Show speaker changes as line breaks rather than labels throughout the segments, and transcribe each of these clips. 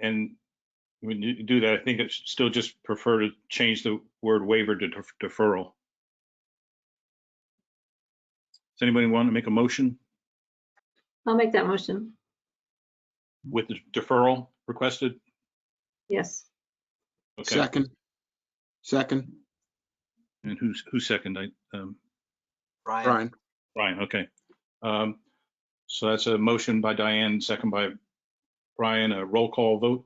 and when you do that, I think it's still just prefer to change the word waiver to def- deferral. Does anybody want to make a motion
I'll make that motion.
with the deferral requested?
Yes.
Okay,
Second. Second,
and who's, who's second? I, um,
Brian,
Brian.
Brian, okay. Um, so that's a motion by Diane, second by Brian, a roll call vote.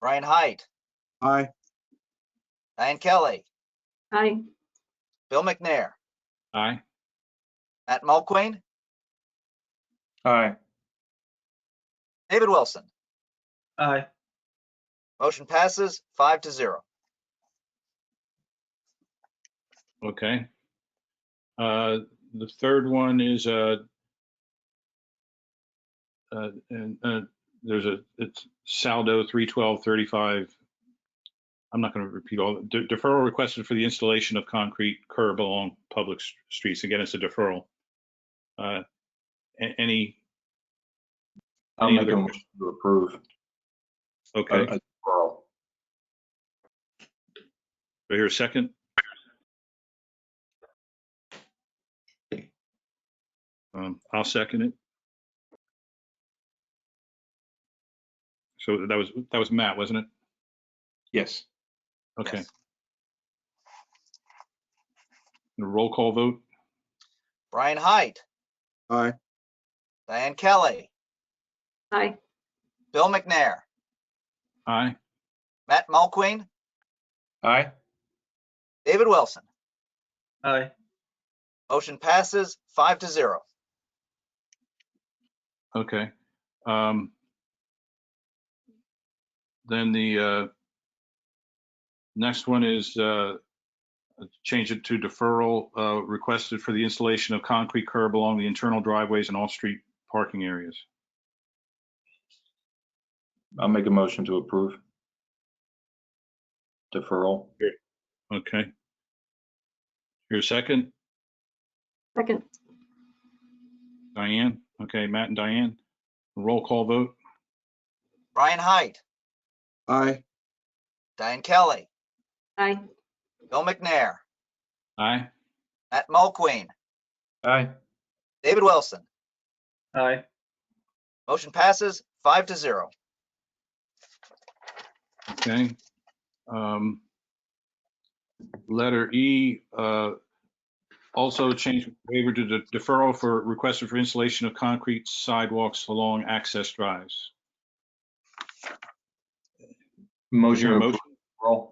Brian Hyde,
Aye.
Diane Kelly,
Aye.
Bill McNair,
Aye.
Matt Mulqueen,
Aye.
David Wilson.
Aye.
Motion passes five to zero.
Okay. Uh, the third one is, uh, uh, and, uh, there's a, it's Saldo three twelve thirty-five. I'm not gonna repeat all, de- deferral requested for the installation of concrete curb along public s- streets. Again, it's a deferral. Uh, a- any,
I'll
Any
make
other
a motion to approve. a-
okay,
a deferral.
do I hear a second? Um, I'll second it. So that was, that was Matt, wasn't it?
Yes.
Okay,
Yes.
the roll call vote,
Brian Hyde,
Aye.
Diane Kelly,
Aye.
Bill McNair,
aye,
Matt Mulqueen,
Aye.
David Wilson.
Aye.
Motion passes five to zero.
okay. Um, Then the uh, next one is uh, change it to deferral uh, requested for the installation of concrete curb along the internal driveways and off-street parking areas.
I'll make a motion to approve. Deferral.
Okay. Your second,
Second.
Diane? Okay, Matt and Diane. Roll call vote.
Brian Hyde,
Aye.
Diane Kelly,
Aye.
Bill McNair,
Aye.
Matt Mulqueen,
Aye.
David Wilson.
Aye.
Motion passes five to zero.
Okay. Um, Letter E, uh, also change waiver to de- deferral for requested for installation of concrete sidewalks along access drives. Is
Motion
there a
to
motion?
approve. deferral.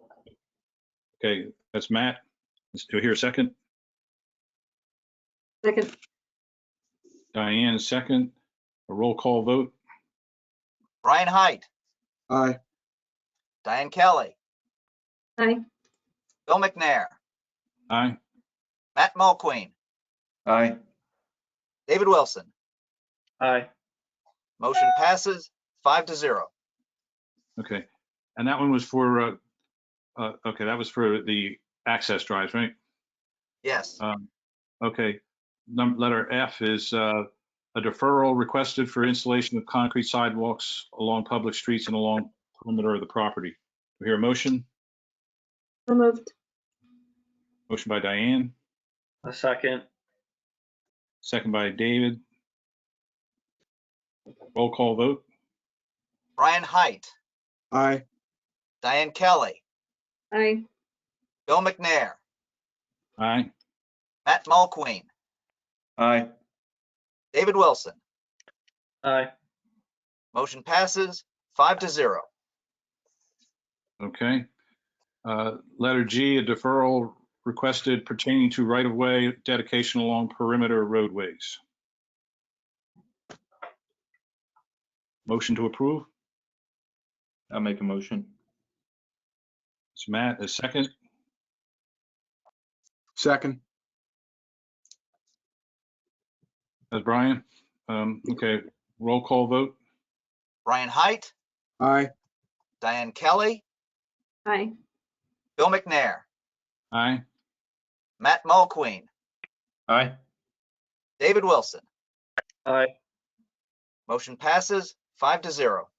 Okay, that's Matt. Let's do here a second.
Second.
Diane, a second. A roll call vote.
Brian Hyde,
Aye.
Diane Kelly,
Aye.
Bill McNair,
Aye.
Matt Mulqueen,
Aye.
David Wilson.
Aye.
Motion passes five to zero.
Okay, and that one was for, uh, uh, okay, that was for the access drives, right?
Yes.
Um, Okay, num, letter F is, uh, a deferral requested for installation of concrete sidewalks along public streets and along perimeter of the property. Do we hear a motion?
So moved.
Motion by Diane,
A second.
second by David. Roll call vote,
Brian Height,
Aye.
Diane Kelly,
Aye.
Bill McNair,
aye,
Matt Mulqueen,
Aye.
David Wilson.
Aye.
Motion passes five to zero.
okay. Uh, letter G, a deferral requested pertaining to right-of-way dedication along perimeter roadways. Motion to approve?
I'll make a motion.
It's Matt, a second.
Second.
That's Brian. Um, okay, roll call vote.
Brian Height,
Aye.
Diane Kelly,
Aye.
Bill McNair,
Aye.
Matt Mulqueen,
Aye.
David Wilson.
Aye.
Motion passes five to zero.